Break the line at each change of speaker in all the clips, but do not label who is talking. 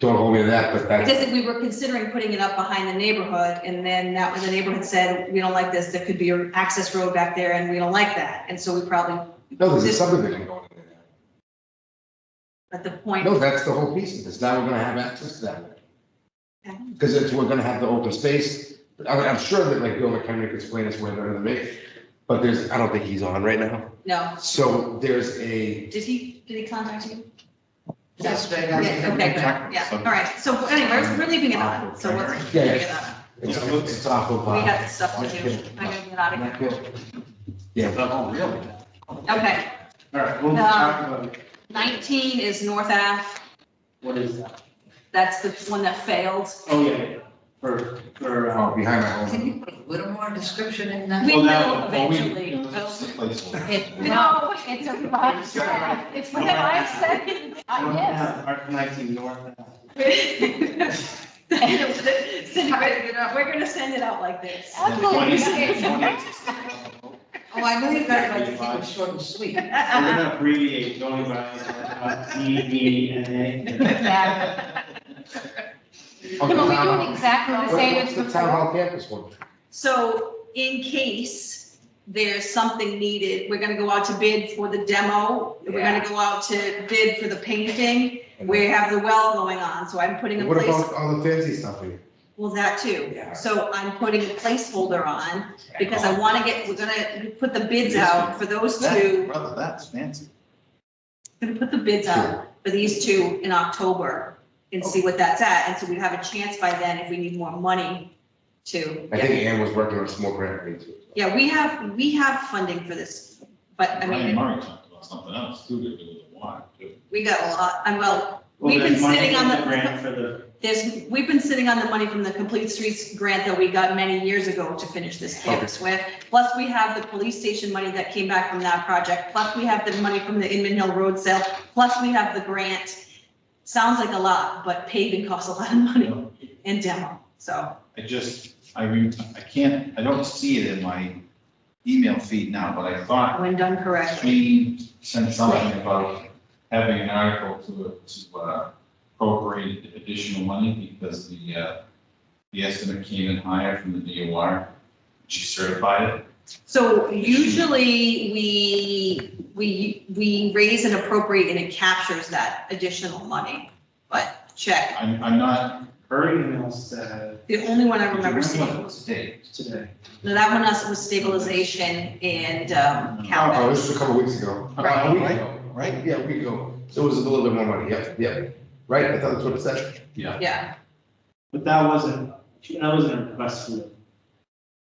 Don't hold me to that, but that's,
Because if we were considering putting it up behind the neighborhood, and then that was, the neighborhood said, we don't like this, there could be an access road back there, and we don't like that, and so we probably,
no, there's a subdivision going in there.
at the point,
No, that's the whole piece of this. Now we're gonna have access to that.
Okay.
Because it's, we're gonna have the open space. I'm, I'm sure that like Bill McHenry could explain this way better than me, but there's, I don't think he's on right now.
no,
So there's a,
did he, did he contact you?
Yes, they
Yeah,
have.
okay, good, yeah, all right, so anyway, we're, we're leaving it on, so we're.
Yeah,
leaving it on.
it's it's uh, awful.
We
Bob.
got stuff to do, I'm gonna get out of
Not
here,
good. Yeah,
Oh, really?
okay,
All right, we'll talk about it.
nineteen is North Ave,
what is that?
that's the one that failed.
Oh, yeah, yeah, for, for, uh,
oh, behind my home.
Can you put a little more description in that?
We
Well, now-
will
well, we-
eventually,
It's a placeholder.
It-
No, it's a five second. It's what I said.
Ah,
North
I
Ave, Art nineteen North. Ave.
Cindy, we're we're gonna send it out like this.
That's what we say.
20.
Oh, I know you guys like to keep it short and sweet.
We're gonna abbreviate going by, uh, E, B, and A.
But we do it exactly the
What-
same
what's
as
The town
before.
hall campus one.
So in case there's something needed, we're gonna go out to bid for the demo. We're gonna go out to bid for the painting. We have the well going on, so I'm putting a
What
place,
about all the fancy stuff? we-
well, that too.
Yeah.
So I'm putting a placeholder on because I wanna get, we're gonna put the bids out for those two.
Brother, that's fancy.
Gonna put the bids out for these two in October and see what that's at. And so we have a chance by then if we need more money to.
I
get
think Ann was working on a small grant. right, too.
Yeah, we have, we have funding for this, but I
Ryan
mean,
Murray talked about something else too, that was a wine, too.
we got a lot, I'm well,
Well,
We've been
there's money
sitting
for
on the-
Grant for the,
there's, we've been sitting on the money from the Complete Streets grant that we got many years ago to finish this campus with. Plus, we have the police station money that came back from that project, plus we have the money from the Inman Hill Road sale, plus we have the grant. Sounds like a lot, but paving costs a lot of money and demo, so,
I just, I, re- I can't, I don't see it in my email feed now, but I thought
when done correctly.
we sent something about having an article to, to uh, appropriate additional money because the, uh, the estimate came in higher from the DOR. She certified it.
So usually, we, we, we raise and appropriate and it captures that additional money, but check.
I'm, I'm not.
her email said
The only one I remember
Remember
seeing,
what state?
today.
no, that one us was stabilization and um,
Oh,
CalMet.
this was a couple weeks ago.
Right.
A week ago, Right, yeah, a week ago. So it was a little bit more money, yeah, yeah. Right, I thought that's what it said.
Yeah,
But that wasn't, that wasn't a request for the,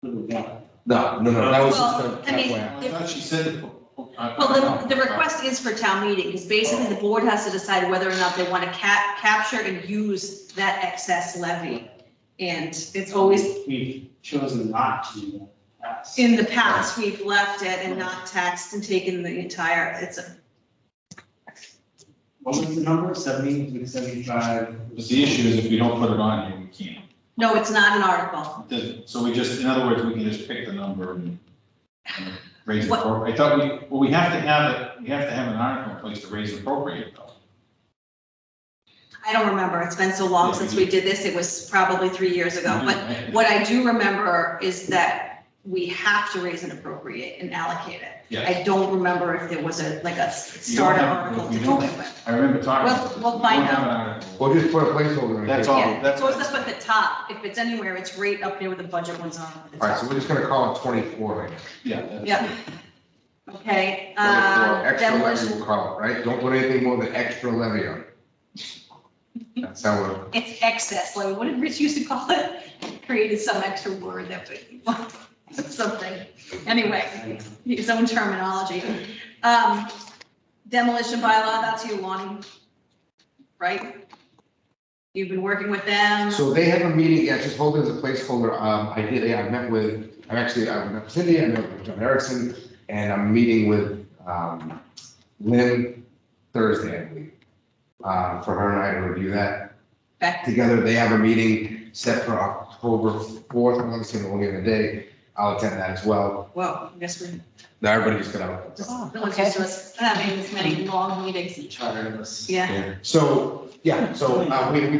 for the ballot.
No, no, no, that was just
Well,
a
I mean-
FYI.
I thought she said. it. uh,
well, the, the request is for town meeting, because basically the board has to decide whether or not they want to cap, capture and use that excess levy. And it's always,
We've chosen not to do that.
in the past, we've left it and not taxed and taken the entire, it's, a-
What was the number? Seventy, seventy-five?
But the issue is if we don't put it on here, we can't.
no, it's not an article.
It doesn't- So we just, in other words, we can just pick the number and and raise it.
What-
I thought we, well, we have to have it, we have to have an article in place to raise and appropriate though.
I don't remember. It's been so long
Yeah,
since
you-
we did this. It was probably three years ago. But
Right.
what I do remember is that we have to raise and appropriate and allocate it.
Yeah,
I don't remember if there was a, like a starter
have-
article to
you
do
don't-
it with.
I remember talking. about
We'll-
this.
we'll
We
find
don't have an article.
Well, just put a placeholder in.
That's
here.
all,
Yeah.
that's.
So it's up at the top. If it's anywhere, it's right up there with the budget ones on at the
All right, so
top.
we're just gonna call it twenty-four right now.
Yeah. that's-
Yeah. Okay, uh,
24, Extra levy,
demolition,
we'll call it, right? Don't put anything more than extra levy on. it. That's how we're,
it's excess. Like, what did Rich used to call it? Created some extra word that would, something. Anyway. his own terminology. Um, demolition bylaw, that's you, Lonnie, right? You've been working with them.
so they have a meeting, yeah, just hold it as a placeholder. Um, I did, I met with, I'm actually, I met with Cindy, I met with John Erickson, and I'm meeting with, um, Lynn Thursday, I believe. Uh, for her and I to review that
Back-
together. They have a meeting set for October fourth, I'm gonna say the only other day. I'll attend that as well.
Whoa, I guess we're,
Now, everybody just got out.
just, no one's used to us having this many long meetings.
Charter list.
Yeah.
So, yeah, so, uh, we, we